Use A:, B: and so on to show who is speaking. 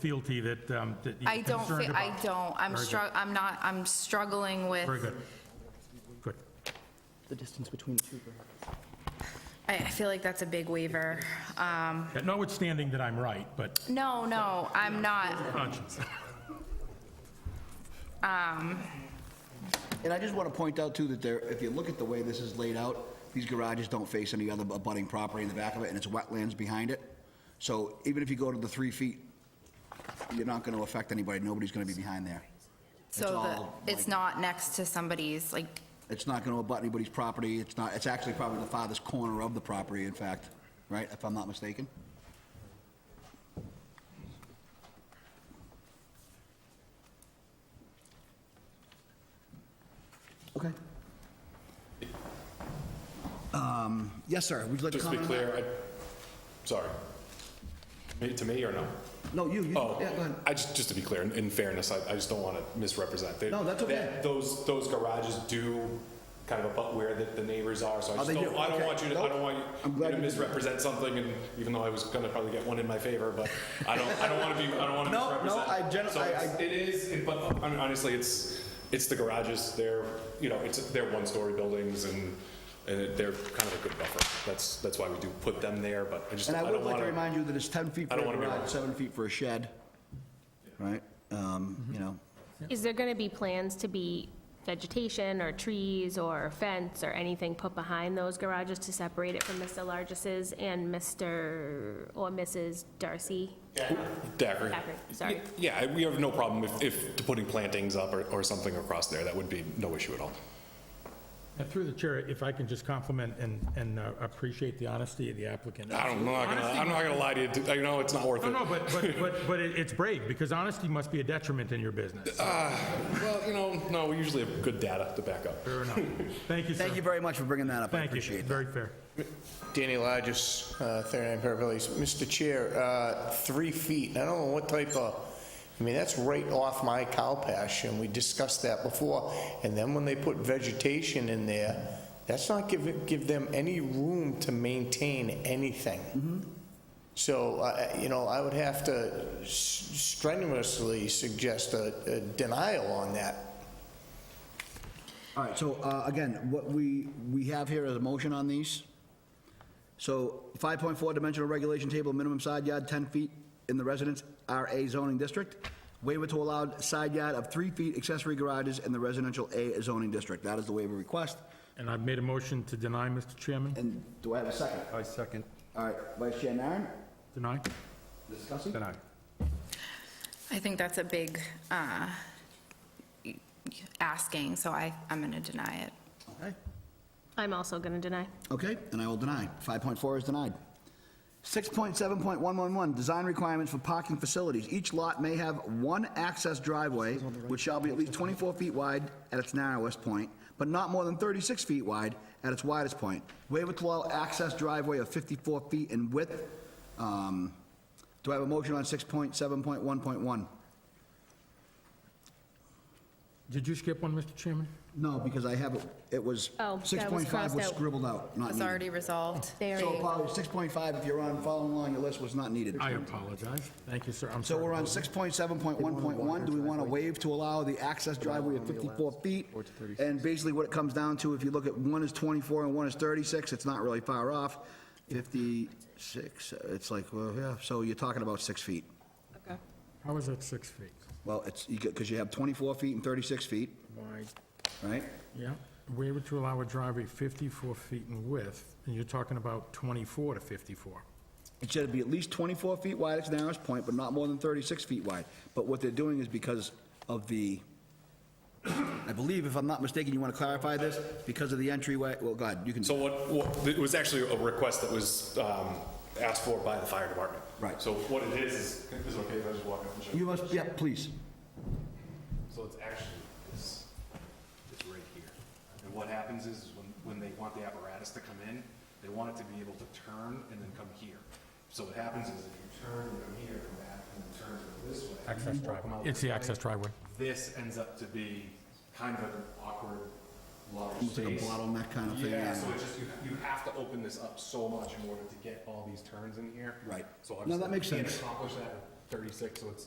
A: fealty that, um, that
B: I
A: you're
B: don't,
A: concerned
B: fe-
A: about.
B: I don't, I'm
A: Very good.
B: strugg, I'm not, I'm struggling with,
A: Very good. Good.
C: the distance between the two grounds.
B: I I feel like that's a big waiver.
A: Yeah, Notwithstanding that I'm right, but
B: No, no, I'm not.
A: conscience.
D: And I just want to point out too that there, if you look at the way this is laid out, these garages don't face any other abutting property in the back of it, and it's wetlands behind it. So even if you go to the three feet, you're not going to affect anybody, nobody's going to be behind there.
B: So the,
D: all
B: it's
D: like-
B: not next to somebody's, like,
D: It's not going to abut anybody's property, it's not, it's actually probably the farthest corner of the property, in fact, right, if I'm not mistaken? Okay. Um, Yes, sir, would you like to
E: Just to
D: comment
E: be
D: on that?
E: clear, I, sorry. Me- To me or no?
D: No, you, you,
E: Oh,
D: yeah, go ahead.
E: I just, just to be clear, in- in fairness, I, I just don't want to misrepresent. They-
D: No, that's okay.
E: that- Those, those garages do kind of abut where the, the neighbors are, so I just
D: Oh, they
E: don't,
D: do?
E: I don't
D: Okay.
E: want you to, I
D: Nope.
E: don't want
D: I'm
E: you
D: glad
E: to
D: you-
E: misrepresent something, and even though I was going to probably get one in my favor, but I don't, I don't want to be, I don't want to
D: No, no,
E: misrepresent.
D: I gen-
E: So
D: I-
E: it's-
D: I-
E: It is, it- but I mean, honestly, it's, it's the garages, they're, you know, it's, they're one-story buildings, and, and they're kind of a good buffer. That's, that's why we do put them there, but I just,
D: And
E: I
D: I
E: don't want
D: would like to remind you that it's 10 feet for
E: I
D: a
E: don't wanna be wrong.
D: garage, seven feet for a shed, right? Um,
E: Mm-hmm.
D: You know,
F: Is there going to be plans to be vegetation or trees or fence or anything put behind those garages to separate it from Mr. Largis's and Mr. or Mrs. Darcy?
E: Dacre.
F: Dacre, sorry.
E: Yeah, I- we have no problem if, if putting plantings up or, or something across there, that would be no issue at all.
A: And Through the chair, if I can just compliment and, and uh, appreciate the honesty of the applicant.
E: I don't, I'm not gonna, I'm not gonna lie to you, you know, it's not worth
A: No,
E: it.
A: no, but, but, but, but it- it's brave, because honesty must be a detriment in your business.
E: Well, you know, no, we usually have good data to back up.
A: Fair enough. Thank you, sir.
D: thank you very much for bringing that up, I
A: Thank you.
D: appreciate that.
A: Very fair.
G: Danny Largis, uh, 39 Purple Place. Mr. Chair, uh, three feet, I don't know what type of, I mean, that's right off my cow pasture, and we discussed that before. And then when they put vegetation in there, that's not give, give them any room to maintain anything. So, I- I- you know, I would have to s- strenuously suggest a a denial on that.
D: All right, so uh, again, what we, we have here is a motion on these. So 5.4 dimensional regulation table, minimum side yard 10 feet in the residence RA zoning district. Waiver to allowed side yard of 3 feet accessory garages in the residential A zoning district. That is the waiver request.
A: And I've made a motion to deny, Mr. Chairman.
D: And do I have a second?
H: I second.
D: All right, Vice Chair Naren,
A: Deny?
D: discussing?
H: Then I.
B: I think that's a big, uh, y- asking, so I, I'm gonna deny it.
D: Okay.
F: I'm also going to deny.
D: Okay, and I will deny. 5.4 is denied. 6.7.111, design requirements for parking facilities. Each lot may have one access driveway, which shall be at least 24 feet wide at its narrowest point, but not more than 36 feet wide at its widest point. Waiver to allow access driveway of 54 feet in width. Um, Do I have a motion on 6.7.1.1?
A: Did you skip one, Mr. Chairman?
D: No, because I have, it it was,
F: Oh,
D: 6.5
F: that was
D: was
F: crossed out.
D: scribbled out, not
B: It's
A: Mm.
D: needed.
B: already resolved.
F: There
D: So
F: you go.
D: apologies, 6.5, if you're on, following along your list, was not needed.
A: I apologize. Thank you, sir. I'm
D: So
A: sorry.
D: we're on 6.7.1.1, do we want to waive to allow the access driveway of 54 feet? And basically what it comes down to, if you look at one is 24 and one is 36, it's not really far off. 56, it's like, well, yeah, so you're talking about six feet.
A: How is that six feet?
D: Well, it's, you because you have 24 feet and 36 feet,
A: My
D: right?
A: Yeah, waiver to allow a driveway 54 feet in width, and you're talking about 24 to 54.
D: It should be at least 24 feet wide at its narrowest point, but not more than 36 feet wide. But what they're doing is because of the, I believe, if I'm not mistaken, you want to clarify this, because of the entryway, well, go ahead, you can.
E: So what, what, it was actually a request that was, um, asked for by the fire department.
D: Right.
E: So what it is, is, is it okay if I just walk up and show you?
D: You must, yeah, please.
E: So it's actually, it's, it's right here. And what happens is, is when, when they want the apparatus to come in, they want it to be able to turn and then come here. So what happens is if you turn, and come here, come back, and then turn and go this way.
A: Access
E: or come
A: driveway.
E: out
A: It's
E: this
A: the
E: way,
A: access driveway.
E: This ends up to be kind of an awkward large
D: Almost like a
E: space.
D: bottleneck kind of thing,
E: Yeah,
D: yeah.
E: so it's just, you, you have to open this up so much in order to get all these turns in here.
D: Right.
E: So
D: No,
E: obviously
D: that makes
E: you can't
D: sense.
E: accomplish that thirty-six, so it's